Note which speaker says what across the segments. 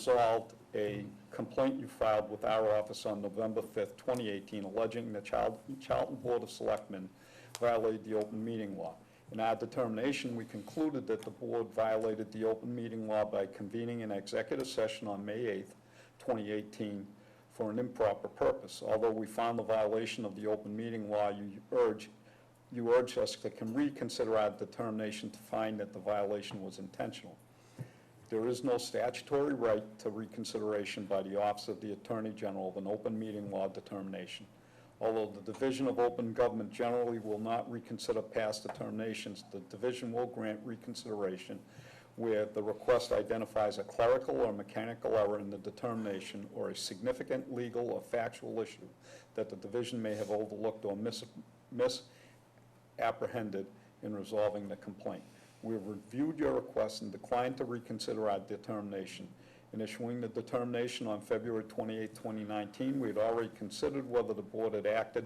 Speaker 1: resolved a complaint you filed with our office on November 5th, 2018, alleging the Chal- Charlton Board of Selectmen violated the open meeting law. In our determination, we concluded that the board violated the open meeting law by convening an executive session on May 8th, 2018, for an improper purpose. Although we found the violation of the open meeting law, you urge, you urge us to can reconsider our determination to find that the violation was intentional. There is no statutory right to reconsideration by the Office of the Attorney General of an open meeting law determination. Although the Division of Open Government generally will not reconsider past determinations, the division will grant reconsideration where the request identifies a clerical or mechanical error in the determination or a significant legal or factual issue that the division may have overlooked or mis- misapprehended in resolving the complaint. We have reviewed your request and declined to reconsider our determination. In issuing the determination on February 28, 2019, we had already considered whether the board had acted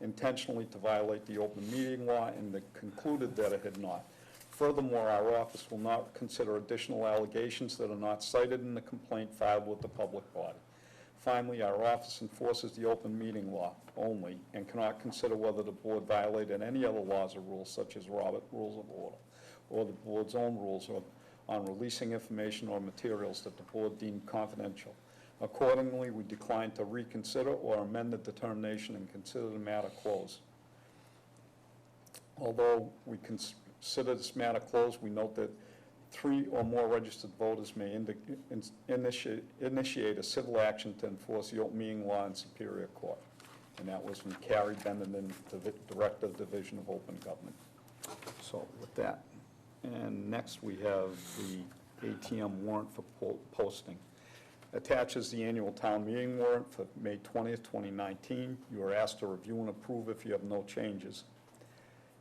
Speaker 1: intentionally to violate the open meeting law and that concluded that it had not. Furthermore, our office will not consider additional allegations that are not cited in the complaint filed with the public body. Finally, our office enforces the open meeting law only and cannot consider whether the board violated any other laws or rules such as Robert Rules of Order or the board's own rules of- on releasing information or materials that the board deemed confidential. Accordingly, we decline to reconsider or amend the determination and consider the matter closed. Although we consider this matter closed, we note that three or more registered voters may indi- in- initiate initiate a civil action to enforce the open meeting law in Superior Court. And that was from Carrie Bendenden, Divi- Director of Division of Open Government. So with that, and next we have the ATM warrant for po- posting. Attaches the annual town meeting warrant for May 20th, 2019. You are asked to review and approve if you have no changes.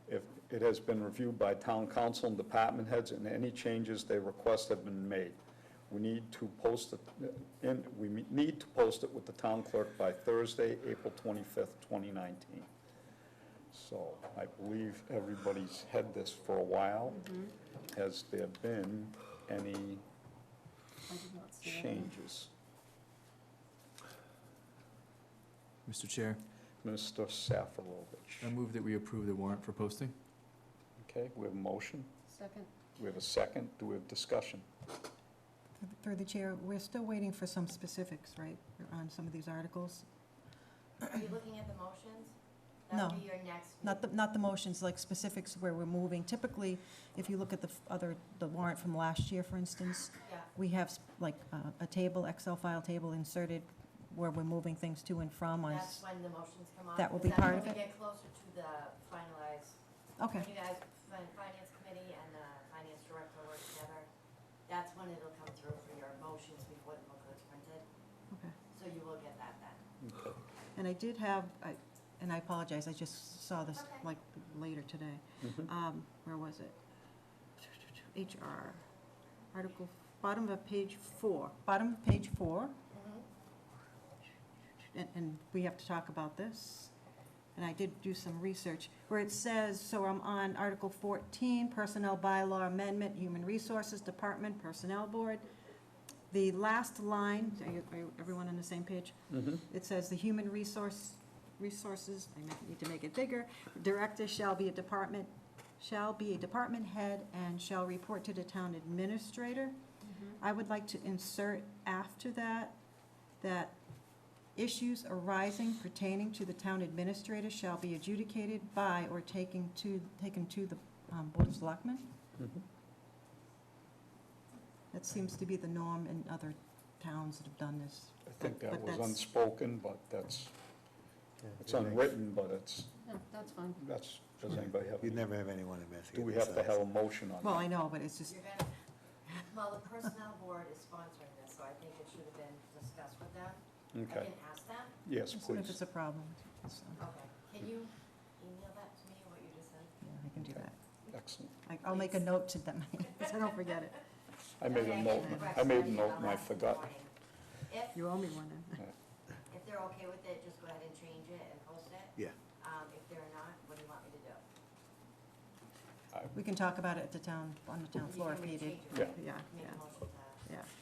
Speaker 1: If it has been reviewed by town council and department heads, and any changes they request have been made. We need to post it, and we need to post it with the town clerk by Thursday, April 25th, 2019. So I believe everybody's had this for a while. Has there been any
Speaker 2: I did not see that.
Speaker 1: changes?
Speaker 3: Mr. Chair,
Speaker 1: Mr.
Speaker 3: I
Speaker 1: Safarovich?
Speaker 3: move that we approve the warrant for posting.
Speaker 1: Okay, we have a motion,
Speaker 2: Second,
Speaker 1: we have a second, do we have discussion?
Speaker 4: Through the chair, we're still waiting for some specifics, right, on some of these articles?
Speaker 5: Are you looking at the motions?
Speaker 4: No.
Speaker 5: That'll be your next.
Speaker 4: Not the, not the motions, like specifics where we're moving. Typically, if you look at the f- other, the warrant from last year, for instance,
Speaker 5: meeting. Yeah,
Speaker 4: we have s- like uh, a table, Excel file table inserted where we're moving things to and from on.
Speaker 5: that's
Speaker 4: s-
Speaker 5: when the motions come on.
Speaker 4: That will
Speaker 5: because
Speaker 4: be
Speaker 5: that's
Speaker 4: part
Speaker 5: when
Speaker 4: of
Speaker 5: we get closer to the finalized,
Speaker 4: Okay,
Speaker 5: when you guys, fin- finance committee and the finance director work together, that's when it'll come through for your motions before the book is printed.
Speaker 4: okay.
Speaker 5: So you will get that then.
Speaker 1: Okay.
Speaker 4: And I did have, I- and I apologize, I just saw this
Speaker 5: Okay.
Speaker 4: like later today.
Speaker 1: Mhm.
Speaker 4: Um, Where was it? HR, article, bottom of page four, bottom of page four. Mm-hmm. and, and we have to talk about this, and I did do some research, where it says, so I'm on Article 14, Personnel Bylaw Amendment, Human Resources Department, Personnel Board. The last line, are you, are you- everyone on the same page?
Speaker 1: Mhm.
Speaker 4: It says, "The human resource, resources," I might need to make it bigger, "Director shall be a department, shall be a department head and shall report to the town administrator."
Speaker 2: Mm-hmm.
Speaker 4: I would like to insert after that, that issues arising pertaining to the town administrator shall be adjudicated by or taken to, taken to the um, Board of Selectmen.
Speaker 1: Mhm.
Speaker 4: That seems to be the norm in other towns that have done this.
Speaker 1: I think that
Speaker 4: But
Speaker 1: was
Speaker 4: that's-
Speaker 1: unspoken, but that's, it's unwritten, but it's,
Speaker 2: no, that's fine.
Speaker 1: that's, does anybody have,
Speaker 6: You'd never have anyone investigate
Speaker 1: do we have to have
Speaker 6: themselves.
Speaker 1: a motion on that?
Speaker 4: Well, I know, but it's just,
Speaker 5: You're gonna, well, the personnel board is sponsoring this, so I think it should have been discussed with them. I
Speaker 1: Okay,
Speaker 5: can ask them.
Speaker 1: yes,
Speaker 4: as soon as it's
Speaker 1: please.
Speaker 4: a problem, so,
Speaker 5: Okay, can you email that to me, what you just said?
Speaker 4: yeah, I can do that.
Speaker 1: Excellent.
Speaker 4: I- I'll make a note to them, so I don't forget it.
Speaker 1: I made a
Speaker 5: Okay,
Speaker 1: note,
Speaker 5: can
Speaker 1: I made
Speaker 5: correct
Speaker 1: a
Speaker 5: my
Speaker 1: note and I
Speaker 5: last
Speaker 1: forgot.
Speaker 5: warning. If,
Speaker 4: You owe me one.
Speaker 5: if they're okay with it, just go ahead and change it and post it.
Speaker 6: Yeah.
Speaker 5: Um, if they're not, what do you want me to do?
Speaker 4: We can talk about it at the town, on the town floor if
Speaker 5: You can
Speaker 4: needed.
Speaker 5: change it,
Speaker 4: Yeah,
Speaker 5: Make a
Speaker 4: yeah,
Speaker 5: motion to
Speaker 4: yeah.